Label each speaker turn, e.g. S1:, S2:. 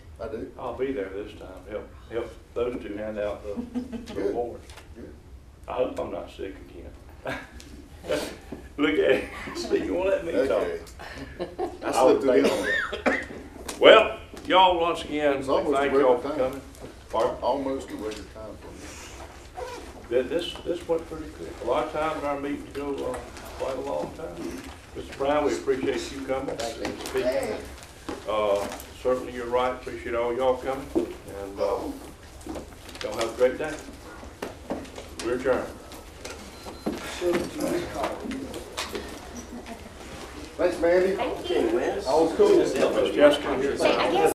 S1: I do.
S2: I'll be there this time, help, help those two hand out the the
S1: Good.
S2: award.
S1: Good.
S2: I hope I'm not sick again. Look at, see, you won't let me talk.
S1: Okay. I
S2: I would
S1: slipped it in
S2: think-
S1: on that.
S2: Well, y'all, once again,
S1: It's almost
S2: thank
S1: a
S2: y'all
S1: record
S2: for
S1: time.
S2: coming. Pardon?
S1: Almost a record time for me.
S2: Th- This, this went pretty quick. A lot of times our meetings go uh, quite a long time. Mr. Brown, we appreciate you coming. Thank you. Speaking. Uh, Certainly, you're right. Appreciate all y'all coming. And uh, y'all have a great day. We're adjourned.
S1: Thanks, Mandy.
S3: Thank you.
S1: All was cool.
S2: Ms. Jessica, here.
S3: I guess